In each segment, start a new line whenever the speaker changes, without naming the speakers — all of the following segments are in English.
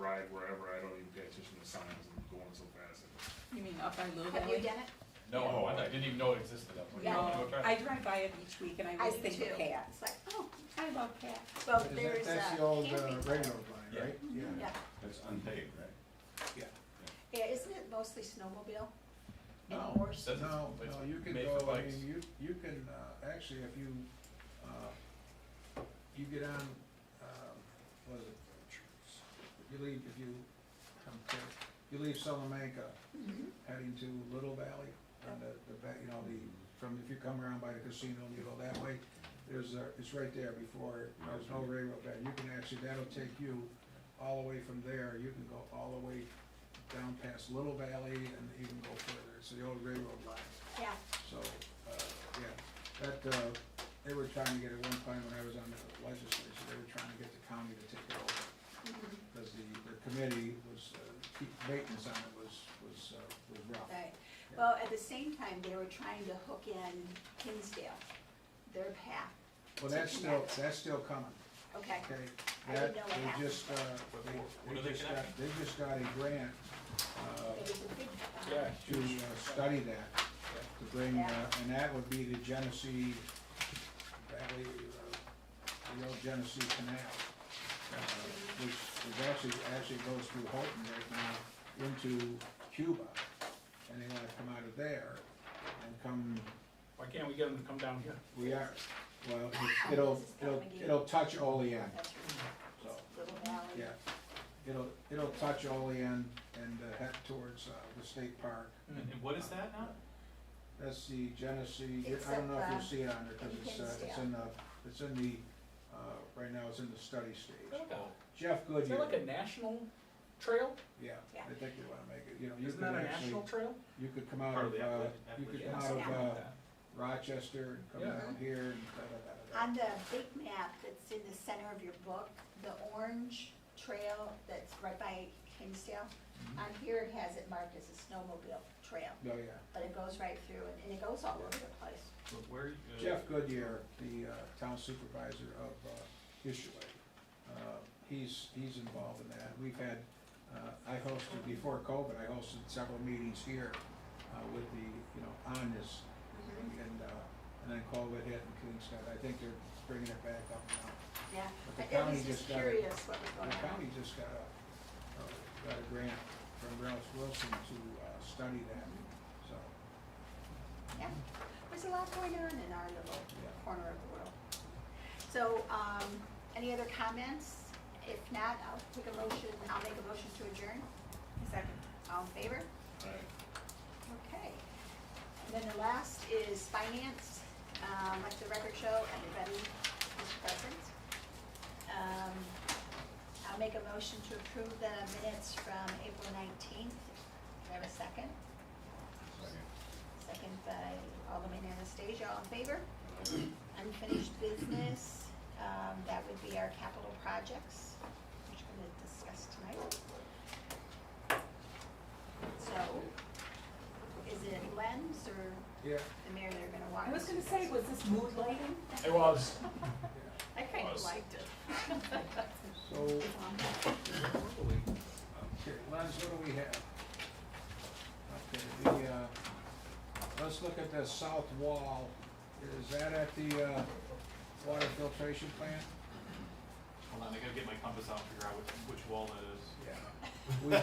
ride wherever, I don't even pay attention to signs, I'm going so fast.
You mean up by Lou
Have you
Valley?
done it?
Oh.
No, I didn't even know it existed. I was like,
Yeah.
"Oh,
No,
okay."
I drive by it each week and I always
do
think
too.
of cats.
It's like, oh,
I love cats.
well,
Is that-
there's a.
That's the old uh,
camping
railroad
club.
line, right?
Yeah,
It's unpaved, right?
yeah, isn't it mostly snowmobile?
No,
Anymore?
it says it's-
No,
it's
no, you can
made for
go, I
bikes.
mean, you, you can, uh, actually, if you, uh, you get on, um, what is it? You leave, if you, come to you leave Salamanca,
Mhm.
heading to Little Valley, on the, the, back, you know, the, from, if you come around by the casino and you go that way, there's a, it's right there before, there's no railroad bed, you can actually, that'll take you all the way from there, you can go all the way down past Little Valley and even go further, it's the old railroad line,
Yeah,
so, uh, yeah, that, uh, they were trying to get, at one time when I was on the legislature, they were trying to get the county to take it over
mhm,
because the, the committee was, uh, keep- maintenance on it was, was, uh, was rough.
right. Well, at the same time, they were trying to hook in Kinsdale, their path,
Well, that's still, that's still coming,
okay?
okay?
I
That,
didn't know what
they
happened.
just, uh, they,
What are
they
they
just got,
connecting?
they just got a grant,
It
uh,
was a big, uh,
Yeah.
to uh, study that, to bring, uh,
Yeah.
and that would be the Genesee Valley, uh, the old Genesee Canal, uh, which is actually, actually goes through Houghton right now into Cuba. And they wanna come out of there and come
Why can't we get them to come down here?
We are, well, it- it'll, it'll, it'll touch Olean,
that's right,
so,
Little Valley.
yeah. It'll, it'll touch Olean and uh, head towards uh, the state park.
Hmm.
And and what is that now?
That's the Genesee,
It's
I don't know if
up,
you
uh,
see it on there, cause it's, uh, it's in the, it's in the, uh, right now it's in the study
Is that
stage.
like a-
Jeff
Is that
Goodyear,
like a national trail?
yeah,
Yeah.
I think they wanna make it, you know, you
Isn't
could
that a
actually,
national trail?
you could come out
Part
of,
of the
uh,
Appalachian-
you could
Appalachian
come out
Something
of,
like
uh,
that.
Rochester and come
Yeah.
down here and da, da, da, da, da.
On the big map that's in the center of your book, the orange trail that's right by Kinsdale,
Mm-hmm.
on here it has it marked as a snowmobile trail,
Oh, yeah.
but it goes right through and- and it goes all over the place.
But Where? uh,
Jeff Goodyear, the uh, town supervisor of uh, Issaway, uh, he's, he's involved in that. We've had, uh, I hosted, before COVID, I hosted several meetings here uh, with the, you know, on this. And, uh, and then COVID hit and things got, I think they're bringing it back up now.
Yeah,
But the
I I was
county
just
just got it.
curious what was
The
going on.
county just got a, uh, got a grant from Ralph Wilson to uh, study that, so,
Yeah, there's a lot going on in our little
Yeah.
corner of the world. So, um, any other comments? If not, I'll take a motion, I'll make a motion to adjourn.
Second.
All in favor?
All right.
Okay. And then the last is finance. Um, Let the record show, everybody is present. Um, I'll make a motion to approve the minutes from April 19th. Do I have a second? Second by Alderman Anastasia, all in favor? Unfinished business, um, that would be our capital projects, which we're gonna discuss tonight. So, is it Len's or
yeah.
the mayor that are gonna walk?
I was
us
gonna
through
say, was this mood lighting?
It was.
yeah.
this? I kinda
Was.
liked it.
So, okay, Lance, what do we have? Okay, the, uh, let's look at the south wall. Is that at the, uh, water filtration plant?
Hold on, I gotta get my compass out and figure out which, which wall that is.
Yeah.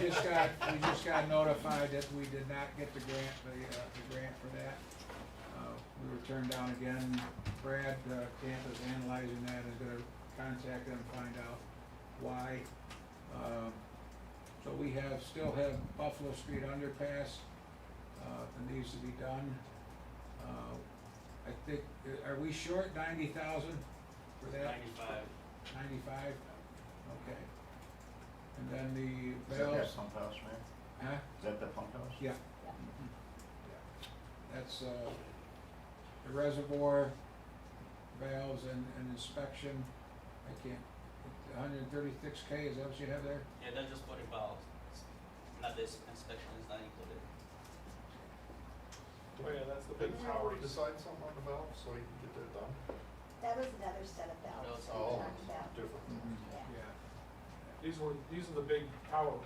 We just got, we just got notified that we did not get the grant, the, uh, the grant for that. Uh, We were turned down again. Brad uh, Camp is analyzing that, is gonna contact them, find out why. Um, So we have, still have Buffalo Street underpass, uh, that needs to be done. Uh, I think, uh, are we short ninety thousand for that?
Ninety-five.
Ninety-five? Okay. And then the
Is that
valves,
that pump house, man?
huh?
Is that the pump house?
Yeah. That's, uh, the reservoir valves and, and inspection, I can't, hundred and thirty-six K, is that what you have there?
Yeah, that's just what it involves. Not this inspection is not included.
Oh, yeah, that's the
Did Howard decide something on the valve so he can get that done?
That was another set of
No,
bells
it's
that we
all
talked about.
Different.
Yeah.
Yeah.
Yeah,
these were, these are the big tower